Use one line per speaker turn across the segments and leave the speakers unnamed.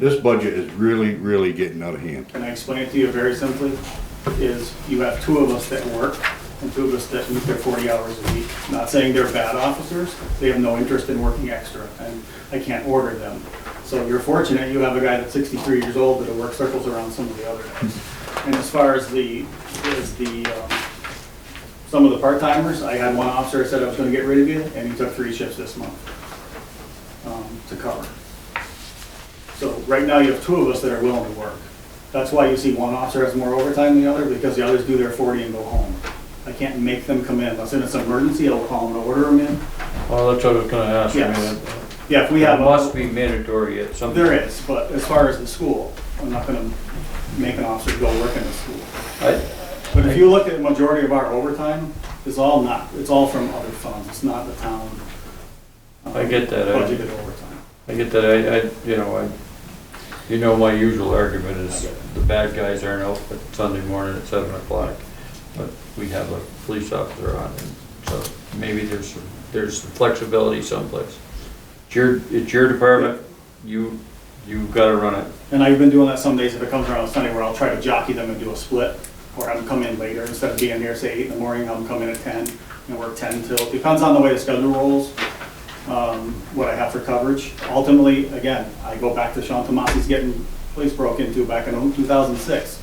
This budget is really, really getting out of hand.
Can I explain it to you very simply? Is you have two of us that work and two of us that meet their 40 hours a week. Not saying they're bad officers, they have no interest in working extra, and I can't order them. So you're fortunate you have a guy that's 63 years old that'll work circles around some of the other guys. And as far as the, as the, um, some of the part-timers, I had one officer that said I was gonna get rid of you, and he took three shifts this month um, to cover. So right now, you have two of us that are willing to work. That's why you see one officer has more overtime than the other, because the others do their 40 and go home. I can't make them come in, unless it's an emergency, I'll call them and order them in.
Well, that's what I was gonna ask. I mean,
Yes.
it-
Yeah, if we
It
have,
must
a-
be mandatory at some.
there is, but as far as the school, I'm not gonna make an officer go work in the school.
I-
But if you look at the majority of our overtime, it's all not, it's all from other funds, it's not the town. um,
I get that, I-
Budgeted overtime.
I get that, I, I, you know, I, you know, my usual argument is the bad guys aren't out but Sunday morning at seven o'clock. But we have a police officer on, and so maybe there's, some- there's some flexibility someplace. It's your, it's your department, you, you gotta run it.
And I've been doing that some days if it comes around Sunday where I'll try to jockey them and do a split. Or I'm come in later, instead of being here, say eight in the morning, I'm coming at ten and work ten till, depends on the way the schedule rolls. Um, what I have for coverage. Ultimately, again, I go back to Sean Tomasi's getting police broke into back in two thousand six.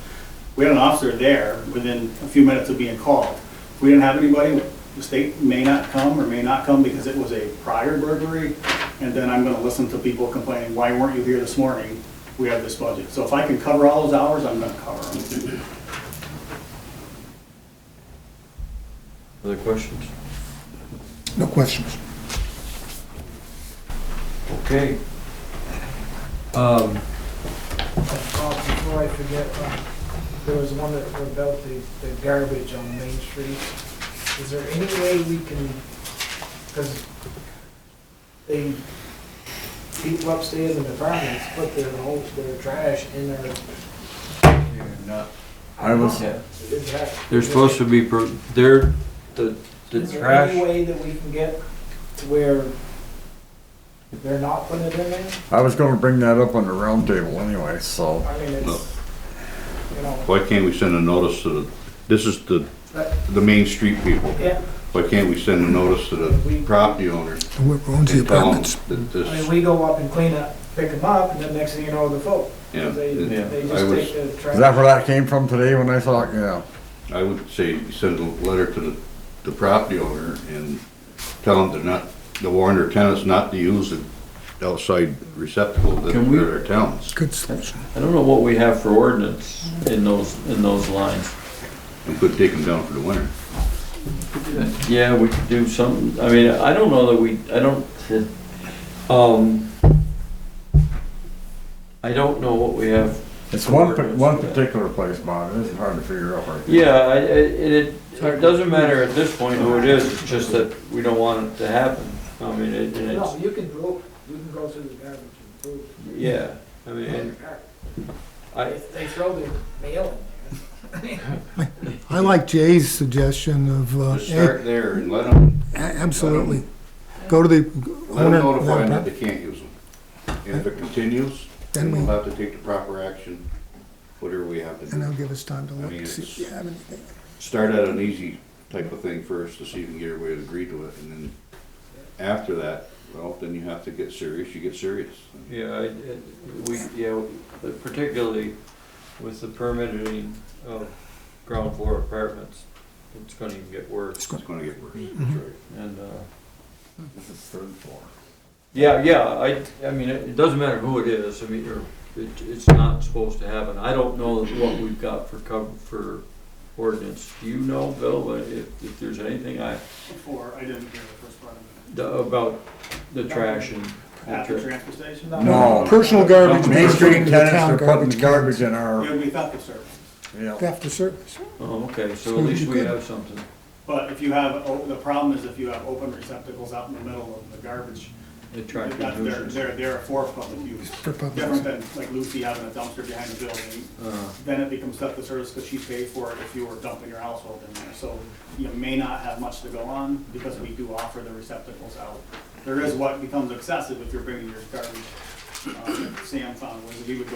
We had an officer there within a few minutes of being called. If we didn't have anybody, the state may not come or may not come because it was a prior burglary. And then I'm gonna listen to people complaining, why weren't you here this morning? We have this budget. So if I can cover all those hours, I'm gonna cover them.
Other questions?
No questions.
Okay. Um,
Bob, before I forget, um, there was one that was about the, the garbage on Main Street. Is there any way we can, because they, people upstairs in the apartments put their whole, their trash in their.
I was,
in that-
They're supposed to be, pro- they're, the, the
Is there any
trash,
way that we can get to where they're not putting it in there?
I was gonna bring that up on the roundtable anyway, so.
I mean,
No.
it's, you know,
Why can't we send a notice to the, this is the,
that,
the Main Street people.
yeah,
Why can't we send a notice to the property owners
And Who owns the
and tell them
apartments?
that
I mean,
this,
we go up and clean up, pick them up, and then next thing you know, the folk.
yeah.
They,
it-
Yeah.
they
I
just
was-
take the trash.
Is that where that came from today when I thought, yeah,
I would say send a letter to the, the property owner and tell them they're not, to warn their tenants not to use the outside receptacle that
Can we-
are their tenants.
Good solution.
I don't know what we have for ordinance in those, in those lines.
And could take them down for the winter.
Yeah, we could do something, I mean, I don't know that we, I don't, um, I don't know what we have.
it's
for
one, pa-
ordinance
one
for that.
particular place, Bob, it's hard to figure out right there.
Yeah, I, I- it, it doesn't matter at this point who it is, it's just that we don't want it to happen. I mean, it, and
No,
it's,
you can go, you can go through the garbage and prove.
yeah, I mean, and I,
They, they throw the mail
I like Jay's suggestion of, uh,
Just start there and let them,
a- absolutely. Go to the
let them
owner.
notify them that
of the
they can't use them. And if it continues,
Then
then we'll
we-
have to take the proper action, whatever we have to
And they'll
do.
give us time to
I
look,
mean,
to see if
it's-
you have anything.
Start out an easy type of thing first to see if you can get everybody to agree to it, and then after that, well, then you have to get serious, you get serious.
yeah, I, it- we, yeah, particularly with the permitting of ground floor apartments, it's gonna even get worse.
It's gonna get worse, that's
Mhm.
right.
And, uh,
This is third floor.
Yeah, yeah, I, I mean, it it doesn't matter who it is, I mean, or, it, it's not supposed to happen, I don't know what we've got for cover, for ordinance. Do you know, Bill, if, if there's anything I,
Before, I didn't hear the first part of
the- about the trash and.
it. At the transfer station?
No.
No.
Personal garbage.
Main
we're putting
Street
to the
tenants
town
are putting
cans.
garbage in
It
our,
would be theft of service.
yeah,
Theft of service.
Oh, okay, so
So
at
we
least we
could-
have something.
But if you have, o- the problem is if you have open receptacles out in the middle of the garbage,
Attractive
that's, they're,
nuisance.
they're, they're for public use.
For public
Different than like Lucy having a dumpster behind the building,
Uh,
then it becomes theft of service because she paid for it if you were dumping your household in there. So you may not have much to go on because we do offer the receptacles out. There is what becomes excessive if you're bringing your garbage uh, um, Sam found was that he would go